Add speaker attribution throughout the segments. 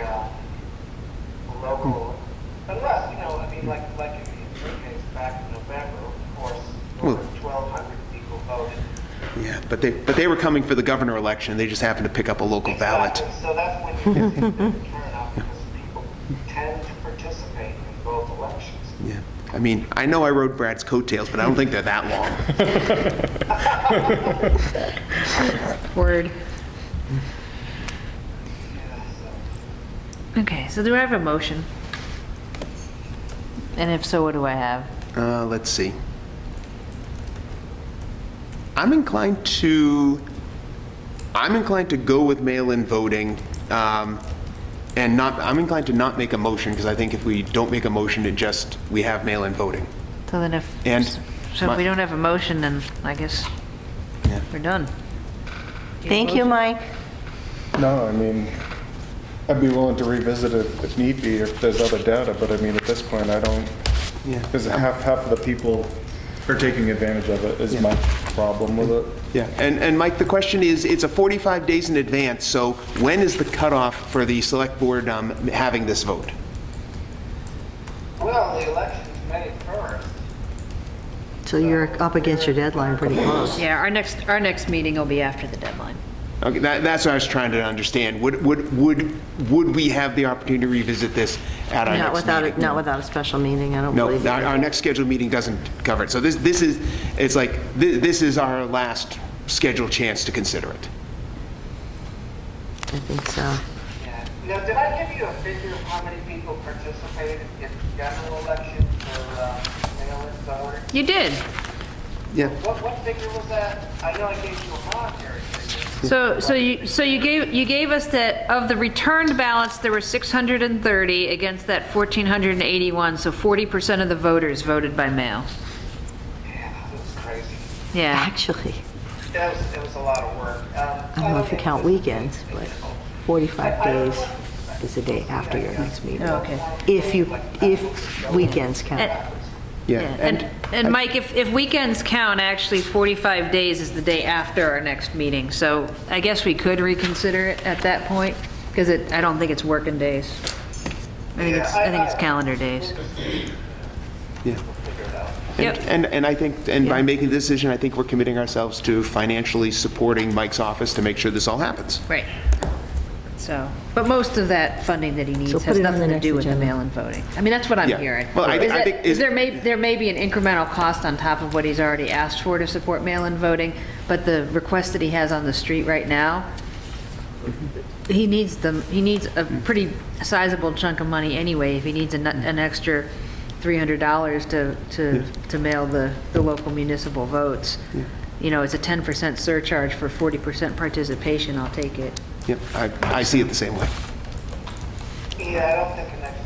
Speaker 1: uh,
Speaker 2: Hmm. But they, but they were coming for the governor election, they just happened to pick up a local ballot.
Speaker 1: Exactly. So that's when you get the big turnout because people tend to participate in both elections.
Speaker 2: Yeah. I mean, I know I rode Brad's coattails, but I don't think they're that long.
Speaker 3: Word.
Speaker 1: Yeah, so
Speaker 3: Okay, so do I have a motion? And if so, what do I have?
Speaker 2: Uh, let's see. I'm inclined to, I'm inclined to go with mail-in voting, um, and not, I'm inclined to not make a motion, because I think if we don't make a motion, it just, we have mail-in voting.
Speaker 3: So then if,
Speaker 2: And
Speaker 3: so
Speaker 2: my-
Speaker 3: if we don't have a motion, then I guess
Speaker 2: Yeah.
Speaker 3: we're done.
Speaker 4: Thank you, Mike.
Speaker 5: No, I mean, I'd be willing to revisit it if need be, if there's other data, but I mean, at this point, I don't,
Speaker 2: Yeah.
Speaker 5: because half, half of the people are taking advantage of it, is my problem with it.
Speaker 2: Yeah, and, and Mike, the question is, it's a 45 days in advance, so when is the cutoff for the select board um, having this vote?
Speaker 1: Well, the election's May 1st.
Speaker 6: So you're up against your deadline pretty close.
Speaker 3: Yeah, our next, our next meeting will be after the deadline.
Speaker 2: Okay, that, that's what I was trying to understand. Would, would, would, would we have the opportunity to revisit this at our
Speaker 6: Not
Speaker 2: next
Speaker 6: without,
Speaker 2: meeting?
Speaker 6: a- not without a special meeting, I don't
Speaker 2: No,
Speaker 6: believe.
Speaker 2: our,
Speaker 6: it.
Speaker 2: our next scheduled meeting doesn't cover it. So this, this is, it's like, thi- this is our last scheduled chance to consider it.
Speaker 6: I think so.
Speaker 1: Yeah. Now, did I give you a figure of how many people participated in the general election for uh, mail-in voting?
Speaker 3: You did.
Speaker 2: Yeah.
Speaker 1: What, what figure was that? I know I gave you a monetary figure.
Speaker 3: So, so you, so you gave, you gave us that, of the returned ballots, there were 630 against that 1,481, so 40% of the voters voted by mail.
Speaker 1: Yeah, that was crazy.
Speaker 3: Yeah.
Speaker 6: Actually,
Speaker 1: That was, that was a lot of work. Um,
Speaker 6: I don't know if you count weekends, but 45 days is the day after your next meeting.
Speaker 3: Oh, Okay.
Speaker 6: If you, if weekends count.
Speaker 2: Yeah,
Speaker 3: And- Yeah, And, and Mike, if, if weekends count, actually 45 days is the day after our next meeting, so I guess we could reconsider it at that point, because it, I don't think it's working days. I think it's, I think it's calendar days.
Speaker 2: yeah.
Speaker 3: Yep.
Speaker 2: And, and I think, and by making this decision, I think we're committing ourselves to financially supporting Mike's office to make sure this all happens.
Speaker 3: Right. So, but most of that funding that he
Speaker 6: So
Speaker 3: needs
Speaker 6: put
Speaker 3: has
Speaker 6: it on the
Speaker 3: nothing to
Speaker 6: next
Speaker 3: do with the
Speaker 6: agenda.
Speaker 3: mail-in voting. I mean, that's what I'm
Speaker 2: Yeah.
Speaker 3: hearing. Is
Speaker 2: Well, I think- I
Speaker 3: that-
Speaker 2: think-
Speaker 3: is there may, there may be an incremental cost on top of what he's already asked for to support mail-in voting, but the request that he has on the street right now, he needs them, he needs a pretty sizable chunk of money anyway, if he needs an, an extra $300 to, to, to mail the, the local municipal votes. You know, it's a 10% surcharge for 40% participation, I'll take it.
Speaker 2: Yep, I, I see it the same way.
Speaker 1: Yeah, I don't think the next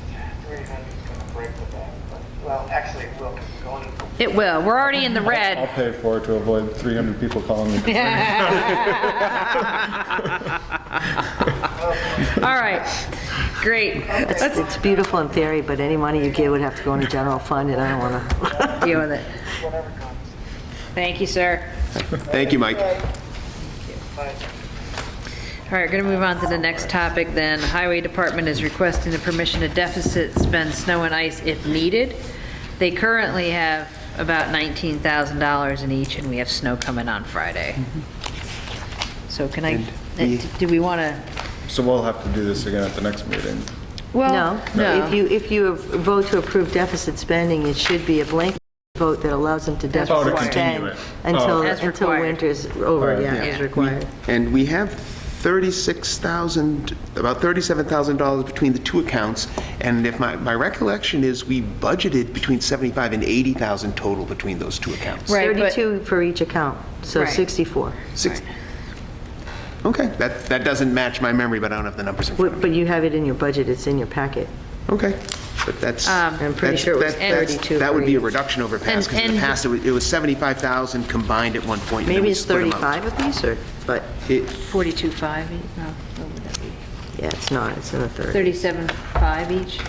Speaker 1: 300 is going to break the bank, but, well, actually, it will, 'cause it's going to
Speaker 3: It will. We're already in the
Speaker 5: I'll
Speaker 3: red.
Speaker 5: pay for it to avoid 300 people calling me.
Speaker 3: All right. Great.
Speaker 6: It's it's beautiful in theory, but any money you get would have to go into general fund, and I don't want to.
Speaker 3: Deal with it. Thank you, sir.
Speaker 2: Thank you, Mike.
Speaker 3: All right, going to move on to the next topic then. Highway Department is requesting the permission to deficit spend snow and ice if needed. They currently have about $19,000 in each, and we have snow coming on Friday. So can I, uh,
Speaker 2: we-
Speaker 3: do we want to?
Speaker 5: So we'll have to do this again at the next meeting.
Speaker 3: Well,
Speaker 6: No. If you, if you vote to approve deficit spending, it should be a blanket vote that allows them to
Speaker 5: Oh, to
Speaker 6: deficit spend
Speaker 5: continue it.
Speaker 6: until,
Speaker 5: Oh.
Speaker 3: As
Speaker 6: until
Speaker 3: required.
Speaker 6: winter's over, yeah,
Speaker 3: Yeah.
Speaker 6: as required.
Speaker 2: And we have 36,000, about $37,000 between the two accounts, and if my, my recollection is, we budgeted between 75 and 80,000 total between those two accounts.
Speaker 3: Right, but-
Speaker 6: 32 for each account, so
Speaker 3: Right.
Speaker 6: 64.
Speaker 2: Six- Okay, that, that doesn't match my memory, but I don't have the numbers in front
Speaker 6: But
Speaker 2: of
Speaker 6: but
Speaker 2: me.
Speaker 6: you have it in your budget, it's in your packet.
Speaker 2: Okay, but that's.
Speaker 6: I'm pretty
Speaker 2: that's-
Speaker 6: sure it was
Speaker 2: that- that's-
Speaker 6: 32
Speaker 2: That would
Speaker 6: for
Speaker 2: be a
Speaker 6: each.
Speaker 2: reduction over past, because in
Speaker 3: And-
Speaker 2: the
Speaker 3: and-
Speaker 2: past, it was- it was 75,000 combined at one point. and then
Speaker 6: Maybe
Speaker 2: we
Speaker 6: it's
Speaker 2: split 'em out.
Speaker 6: 35 apiece, or, but,
Speaker 2: It-
Speaker 3: 42.5, each? no, what would that be?
Speaker 6: yeah, it's not, it's in the 30.
Speaker 3: 37.5 each,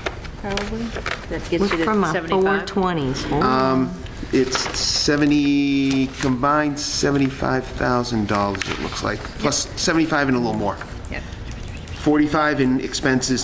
Speaker 3: probably? That gets you
Speaker 6: Look
Speaker 3: to
Speaker 6: from a
Speaker 3: 75?
Speaker 6: 420s.
Speaker 2: It's 70, combined $75,000, it looks like, plus 75 and a little more.
Speaker 3: Yep.
Speaker 2: 45 in expenses